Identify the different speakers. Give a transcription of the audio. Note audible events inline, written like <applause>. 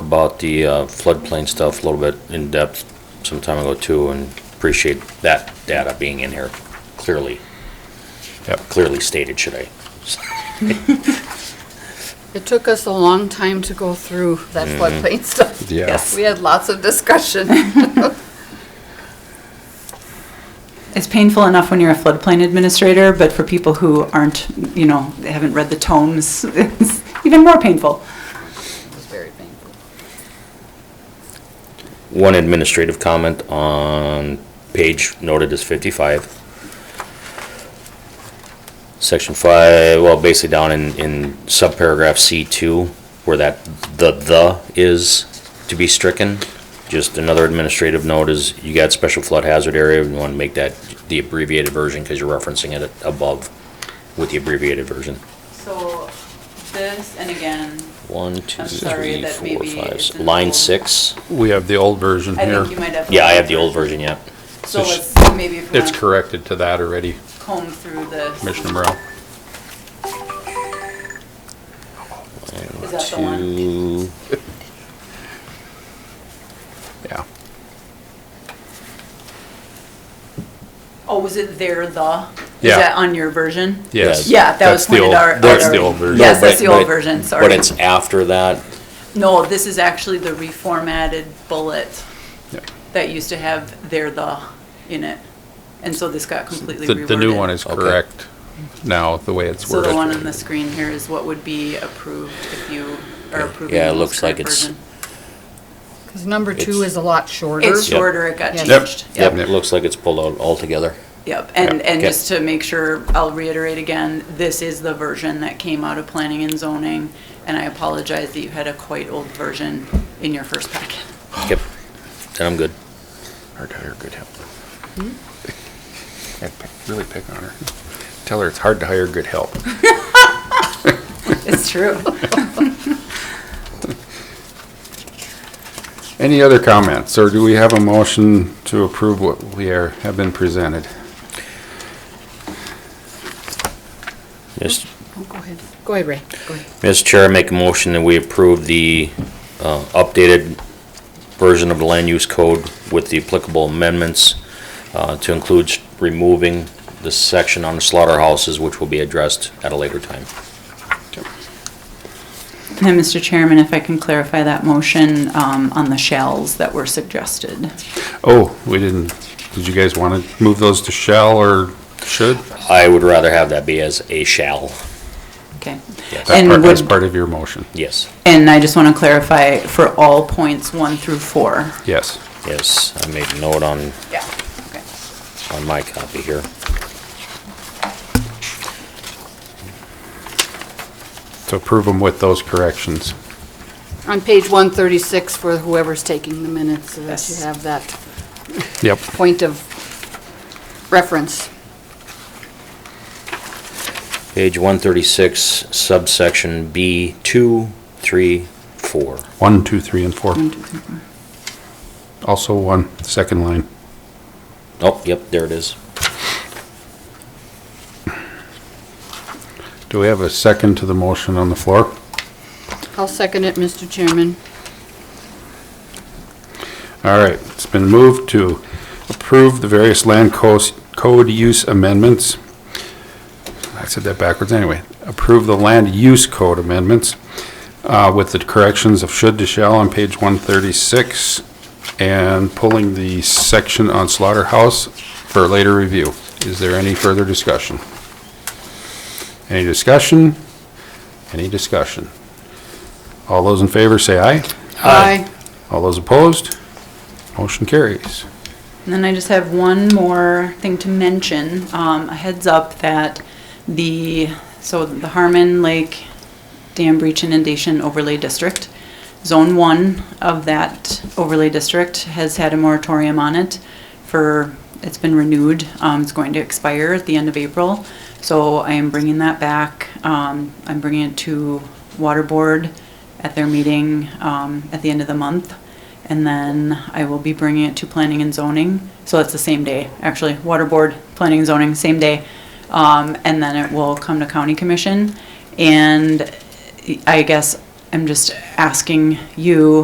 Speaker 1: about the uh, floodplain stuff a little bit in depth some time ago too, and appreciate that data being in here clearly,
Speaker 2: Yep.
Speaker 1: clearly stated, should <laughs> I?
Speaker 3: It took us a long time to go through that floodplain stuff.
Speaker 2: Yeah.
Speaker 3: Yes, We had lots of discussion.
Speaker 4: It's painful enough when you're a floodplain administrator, but for people who aren't, you know, they haven't read the tomes, <laughs> it's even more painful.
Speaker 3: It was very painful.
Speaker 1: One administrative comment on page noted as 55. Section 5, well, basically down in, in subparagraph C2, where that the, the is to be stricken. Just another administrative note is you got special flood hazard area, you want to make that the abbreviated version because you're referencing it above with the abbreviated version.
Speaker 4: So this, and again,
Speaker 1: One, two,
Speaker 4: I'm sorry,
Speaker 1: three,
Speaker 4: that
Speaker 1: four,
Speaker 4: maybe
Speaker 1: five.
Speaker 4: it's
Speaker 1: s-
Speaker 4: in
Speaker 1: Line
Speaker 4: old.
Speaker 1: 6,
Speaker 2: We have the old version
Speaker 4: I
Speaker 2: here.
Speaker 4: think you might have.
Speaker 1: yeah, I have the old version, yeah.
Speaker 4: So
Speaker 2: it's-
Speaker 4: let's, maybe if we
Speaker 2: It's
Speaker 4: want to
Speaker 2: corrected to that already,
Speaker 4: comb through this.
Speaker 2: Commissioner Morrell.
Speaker 4: Is that the one?
Speaker 1: Two,
Speaker 2: Yeah.
Speaker 4: Oh, was it there, the?
Speaker 2: Yeah.
Speaker 4: Is that on your version?
Speaker 2: Yes.
Speaker 4: Yeah, that was
Speaker 2: That's the
Speaker 4: pointed
Speaker 2: old-
Speaker 4: out.
Speaker 2: That's the
Speaker 4: already.
Speaker 2: old version.
Speaker 4: Yes,
Speaker 1: No,
Speaker 4: that's
Speaker 1: but-
Speaker 4: the old
Speaker 1: but-
Speaker 4: version, sorry.
Speaker 1: But it's after that,
Speaker 4: No, this is actually the reformatted bullet
Speaker 2: Yeah.
Speaker 4: that used to have there, the in it. And so this got completely
Speaker 2: The,
Speaker 4: reworded.
Speaker 2: the new one is
Speaker 1: Okay.
Speaker 2: correct now, the way it's
Speaker 4: So
Speaker 2: worded.
Speaker 4: the one on the screen here is what would be approved if you are approving
Speaker 1: Yeah, it
Speaker 4: the most
Speaker 1: looks like
Speaker 4: current
Speaker 1: it's-
Speaker 4: version.
Speaker 3: Because number two
Speaker 1: It's-
Speaker 3: is a lot shorter. Oh,
Speaker 4: It's shorter, it got
Speaker 3: Yes.
Speaker 2: Yep.
Speaker 4: changed.
Speaker 1: yep,
Speaker 2: Yep.
Speaker 1: it looks like it's pulled out altogether.
Speaker 4: Yep, and,
Speaker 2: Yeah.
Speaker 4: and
Speaker 1: Okay.
Speaker 4: just to make sure, I'll reiterate again, this is the version that came out of planning and zoning, and I apologize that you had a quite old version in your first packet.
Speaker 1: Yep, then I'm good.
Speaker 2: Our guy, are good help. I pick- Really pick on her. Tell her it's hard to hire good help.
Speaker 4: <laughs> It's true.
Speaker 2: <laughs> Any other comments, or do we have a motion to approve what we are, have been presented?
Speaker 1: Mr.
Speaker 3: Oh, Go ahead. Go ahead, Ray. Go ahead.
Speaker 1: Mr. Chair, I make a motion that we approve the uh, updated version of the land use code with the applicable amendments uh, to include s- removing the section on slaughterhouses, which will be addressed at a later time.
Speaker 4: And Mr. Chairman, if I can clarify that motion um, on the shells that were suggested.
Speaker 2: Oh, we didn't, did you guys want to move those to shall or should?
Speaker 1: I would rather have that be as a shall,
Speaker 4: Okay.
Speaker 1: Yes.
Speaker 2: That
Speaker 4: And
Speaker 2: part- That's
Speaker 4: would-
Speaker 2: part of your motion,
Speaker 1: yes,
Speaker 4: And I just want to clarify for all points one through four.
Speaker 2: yes.
Speaker 1: yes, I made a note on,
Speaker 4: Yeah, okay.
Speaker 1: on my copy here.
Speaker 2: To approve them with those corrections.
Speaker 3: On page 136 for whoever's taking the minutes, so that you
Speaker 4: Yes.
Speaker 3: have that
Speaker 2: Yep.
Speaker 3: point of reference.
Speaker 1: Page 136, subsection B, 2, 3, 4.
Speaker 2: One, two, three, and four.
Speaker 4: One, two, three, four.
Speaker 2: Also one, second line.
Speaker 1: Oh, yep, there it is.
Speaker 2: Do we have a second to the motion on the floor?
Speaker 3: I'll second it, Mr. Chairman.
Speaker 2: All right, it's been moved to approve the various land coast code use amendments. I said that backwards anyway. Approve the land use code amendments uh, with the corrections of should to shall on page 136 and pulling the section on slaughterhouse for later review. Is there any further discussion? Any discussion? Any discussion? All those in favor say aye.
Speaker 3: Aye.
Speaker 2: All those opposed? Motion carries.
Speaker 4: And then I just have one more thing to mention, um, a heads up that the, so the Harmon Lake Dam Breach Inundation Overlay District, Zone One of that overlay district has had a moratorium on it for, it's been renewed, um, it's going to expire at the end of April. So I am bringing that back, um, I'm bringing it to Water Board at their meeting, um, at the end of the month. And then I will be bringing it to planning and zoning. So that's the same day, actually, water board, planning and zoning, same day. Um, and then it will come to county commission. And I guess I'm just asking you